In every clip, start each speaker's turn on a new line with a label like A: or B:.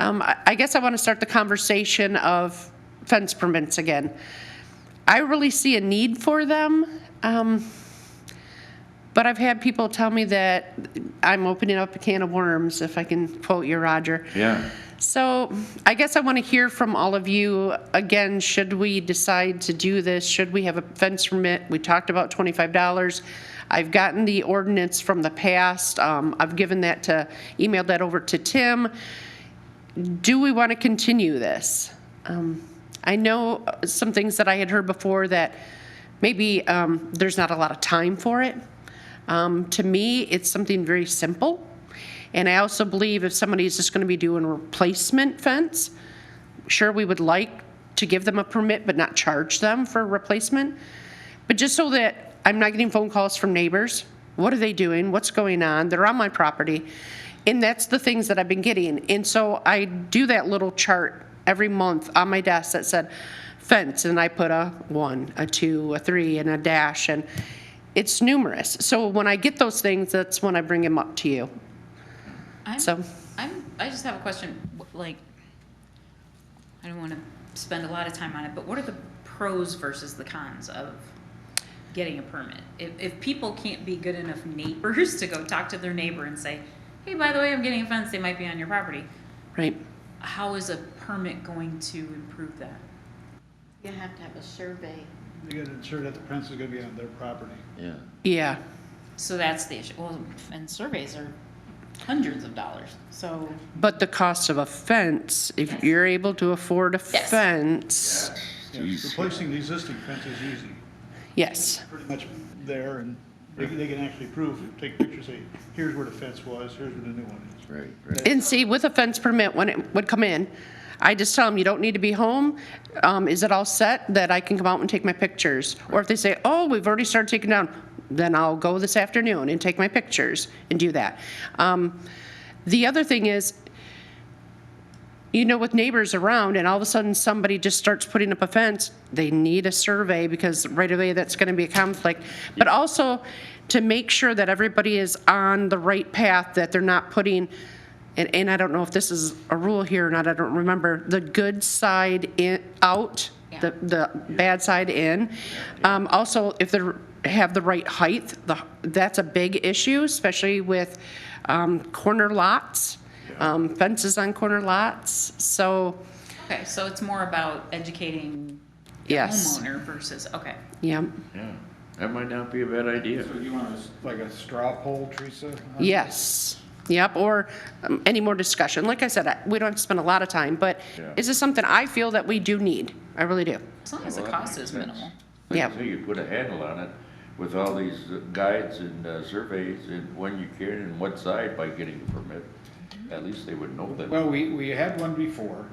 A: Um, I I guess I want to start the conversation of fence permits again. I really see a need for them. Um, but I've had people tell me that I'm opening up a can of worms, if I can quote you, Roger.
B: Yeah.
A: So I guess I want to hear from all of you, again, should we decide to do this? Should we have a fence permit? We talked about $25. I've gotten the ordinance from the past. Um, I've given that to, emailed that over to Tim. Do we want to continue this? Um, I know uh, some things that I had heard before that maybe um, there's not a lot of time for it. Um, To me, it's something very simple. And I also believe if somebody is just going to be doing replacement fence, sure, we would like to give them a permit, but not charge them for replacement. But just so that I'm not getting phone calls from neighbors, what are they doing? What's going on? They're on my property. And that's the things that I've been getting. And so I do that little chart every month on my desk that said fence, and I put a one, a two, a three, and a dash, and it's numerous. So when I get those things, that's when I bring them up to you.
C: I'm,
A: So-
C: I'm, I just have a question, wh- like, I don't wanna spend a lot of time on it, but what are the pros versus the cons of getting a permit? If, if people can't be good enough neighbors to go talk to their neighbor and say, hey, by the way, I'm getting a fence, they might be on your property,
A: Right.
C: how is a permit going to improve that?
D: You have to have a survey.
E: You gotta ensure that the fence is gonna be on their property.
B: Yeah.
A: Yeah.
C: So that's the issue, well, and surveys are hundreds of dollars, so.
A: But the cost of a fence, if you're able to afford a
C: Yes.
A: fence,
E: Yeah,
B: Jeez.
E: Replacing the existing fence is easy,
A: yes,
E: pretty much there, and they, they can actually prove, take pictures, say, here's where the fence was, here's where the new one is.
B: Right, right.
A: And see, with a fence permit, when it would come in, I just tell them, you don't need to be home. Um, is it all set that I can come out and take my pictures? Or if they say, oh, we've already started taking down, then I'll go this afternoon and take my pictures and do that. Um, the other thing is, you know, with neighbors around and all of a sudden somebody just starts putting up a fence, they need a survey because right away that's gonna be a conflict. But also to make sure that everybody is on the right path, that they're not putting, and, and I don't know if this is a rule here or not, I don't remember, the good side in, out, the, the bad side in. Um, also, if they're, have the right height, the, that's a big issue, especially with, um, corner lots um, fences on corner lots, so,
C: Okay, so it's more about educating the
A: Yes.
C: homeowner versus, okay.
A: yeah,
B: Yeah. That might not be a bad idea.
F: So you want us, like a straw poll, Teresa?
A: yes, yep, or um, any more discussion, like I said, I- we don't have to spend a lot of time, but
B: Yeah.
A: is this something I feel that we do need? I really do,
C: As long as the
B: Well, that
C: cost
B: makes
C: is
B: sense.
C: minimal.
B: Like
A: Yeah.
B: you say, you put a handle on it with all these uh, guides and uh, surveys and when you can and what side by getting a permit.
C: Mm-hmm.
B: At least they would know that.
F: Well, we, we had one before,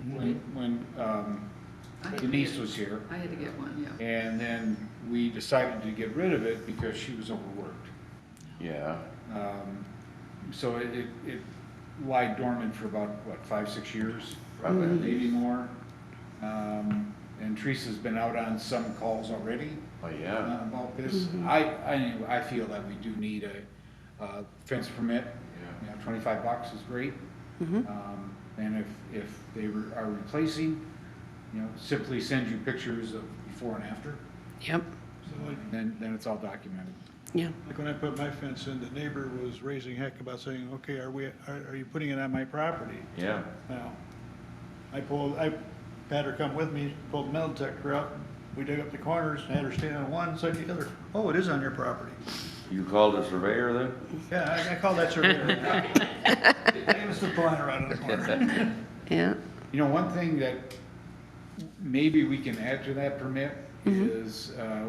E: Mm-hmm.
F: when, when um, Denise was here.
G: I had to get one, yeah.
F: And then we decided to get rid of it because she was overworked.
B: Yeah,
F: Um, So it, it it lied dormant for about, what, five, six years?
B: Probably.
F: Maybe more. Um, And Teresa's been out on some calls already.
B: oh,
F: uh,
B: yeah,
F: about this. I, I, anyway, I feel that we do need a, uh fence permit. You know, twenty-five bucks is great. Um, and if, if they re- are replacing, you know, simply send you pictures of before and after,
A: yep,
E: So like,
F: then, then it's all documented.
A: yeah,
E: like when I put my fence in, the neighbor was raising heck about saying, okay, are we, are, are you putting it on my property?
B: yeah.
E: Now, I pulled, I had her come with me, pulled the metal detector out, we dug up the corners, and had her stand on one side to the other, oh, it is on your property.
B: You called a surveyor then?
E: Yeah, I, I call that surveyor. They must have blown her out of the corner.
A: yeah,
F: You know, one thing that maybe we can add to that permit is, uh,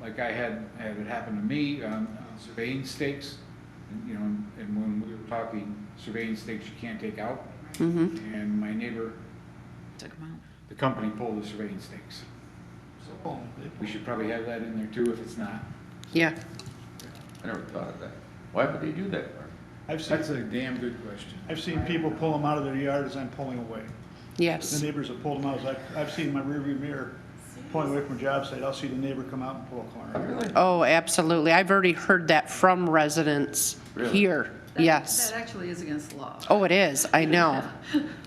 F: like I had, had it happen to me on on surveying stakes. And, You know, and when we were talking surveying stakes you can't take out. And my neighbor,
C: Took 'em out.
F: the company pulled the surveying stakes.
E: So, it-
F: We should probably have that in there too if it's not.
A: yeah,
B: I never thought of that. Why would they do that, Mark?
E: I've seen,
F: That's a damn good question.
E: I've seen people pull them out of their yard as I'm pulling away. The
A: yes,
E: neighbors have pulled them out, as I've, I've seen my rearview mirror pulling away from a job site, I'll see the neighbor come out and pull a corner.
A: oh, absolutely, I've already heard that from residents
B: Really?
A: here,
G: That-
A: yes.
G: That actually is against the law.
A: Oh, it is, I know.